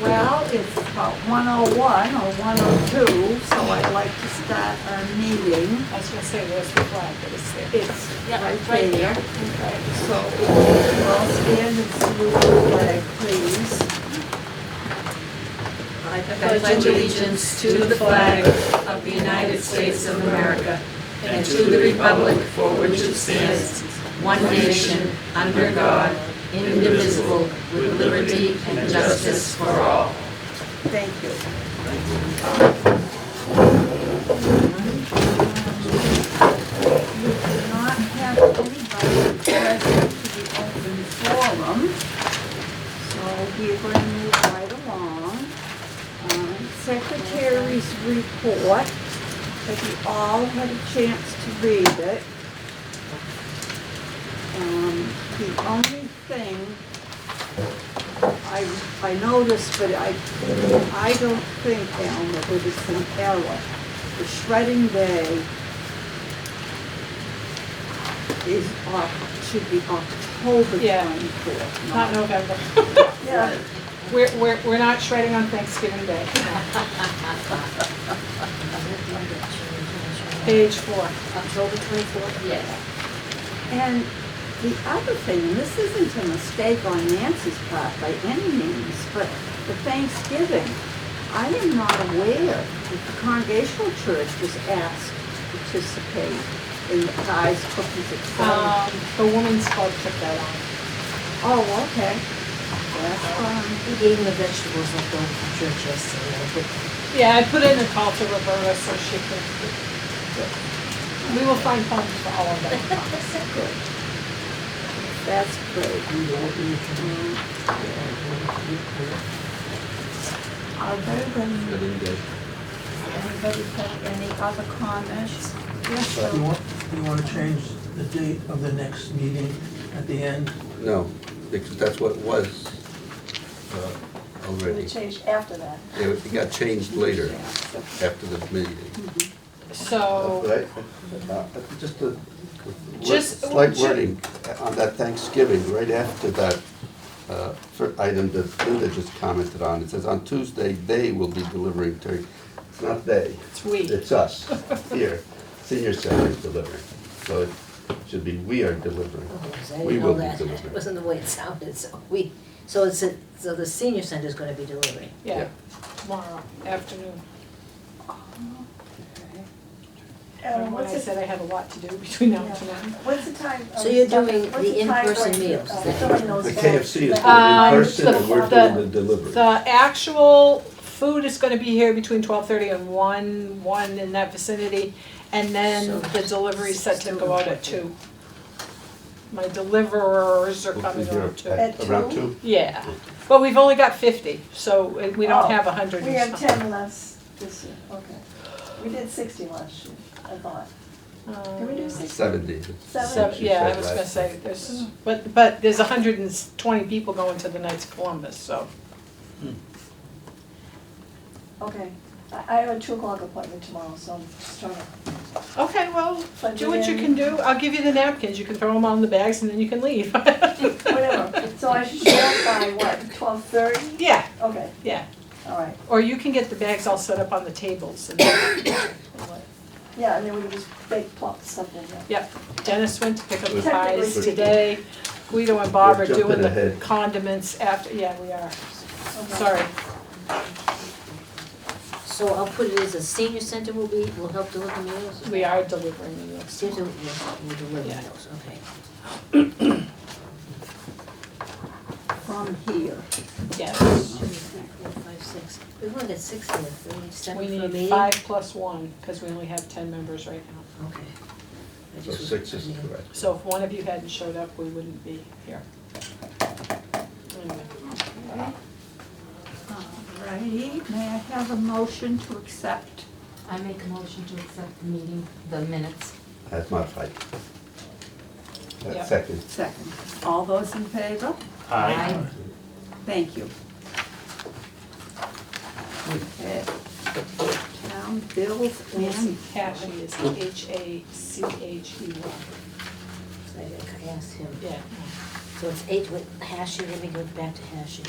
Well, it's about one oh one or one oh two, so I'd like to start our meeting. I was gonna say, where's the flag, but it's there. It's Yeah, right right there. So if you all stand and salute the flag, please. I pledge allegiance to the flag of the United States of America and to the republic for which it stands, one nation, under God, indivisible, with liberty and justice for all. Thank you. We do not have anybody present to the open forum, so we're going to move right along. Um, Secretary's report, have you all had a chance to read it? Um, The only thing I, I noticed, but I, I don't think, Alan, that there was an error. The shredding day is, Oc- should be October Yeah. twenty-fourth. Not November. Yeah. We're, we're, we're not shredding on Thanksgiving Day. Page four. October 24th? Yes. And the other thing, and this isn't a mistake on Nancy's part by any means, but the Thanksgiving, I am not aware that the Congregational Church was asked to participate in the pies, cookies, etc. Um, the woman's club took that on. Oh, okay. That's fine. We gave him the vegetables left over from church yesterday. I put Yeah, I put in a call to Roberta so she could. We will find funds for all of that. Good. That's great. we don't eat them. Are there then anybody have any other comments? Yes, sir. You want, you want to change the date of the next meeting at the end? No, because that's what it was uh, already. changed after that. It got changed later after the meeting. So, Uh, Just a Oh. Just- slight wording on that Thanksgiving, right after that uh, for item that Linda just commented on. It says, "On Tuesday, they will be delivering turkey." It's not they. It's we. It's us, here. Senior Center is delivering. So it should be, "We are delivering." Oh, I We didn't will know be that. delivering. It wasn't the way it sounded, so we, so it's, a- so the senior center's gonna be delivering. yeah, Yeah. tomorrow afternoon. Adam, When what's I it, said I had a lot to do between now and tonight. what's the time? So you're um, doing what's the time for, in-person meals, uh, then? Domino's The for- KFC is Um, delivering person, and we're doing the delivery. The actual food is gonna be here between twelve thirty and one, one in that vicinity, and then So- the delivery set to still go out at two. My deliverers are coming around two. At Around two? two? Yeah, but we've only got fifty, so uh, we Oh, don't have a hundred We and have some. ten less this year, okay. We did sixty last year, I thought. Can we do Uh, sixty? Seventy. So, Seven? She yeah, I said was last gonna time. say, this is, but, but there's a hundred and twenty people going to the Knights of Columbus, so. Okay. I, I have a two o'clock appointment tomorrow, so I'm just trying to. Okay, well, Plug do what it you in. can do, I'll give you the napkins, you can throw them all in the bags and then you can leave. Whatever, so I should show up by what, twelve thirty? Yeah, Okay, yeah, all right, or you can get the bags all set up on the tables and, yeah, and then we can just bake, plop the stuff in there. yep. Dennis went to pick up the We're- pies we're- today, Guido and Bob We're are doing jumping the ahead. condiments after, yeah, we are, Okay. sorry. So I'll put it as a senior center will be, will help deliver meals? We are delivering the meals Senior tomorrow. will, will deliver Yeah. meals, okay. From here. Yes, Two, three, four, five, six. We only got six here, we need seven we for a need meeting? five plus one, because we only have ten members right now. Okay. I So just was- six is I mean, correct. So if one of you hadn't showed up, we wouldn't be here. Anyway. Alrighty, may I have a motion to accept? I make a motion to accept the meeting, the minutes. That's my fight. Yeah. That second. Second. All those in favor? Aye. Thank you. Okay. Town bills Nancy and Cashy is H A C H E Y, I asked him, yeah. so it's eight with Hashi, let me go back to Hashi.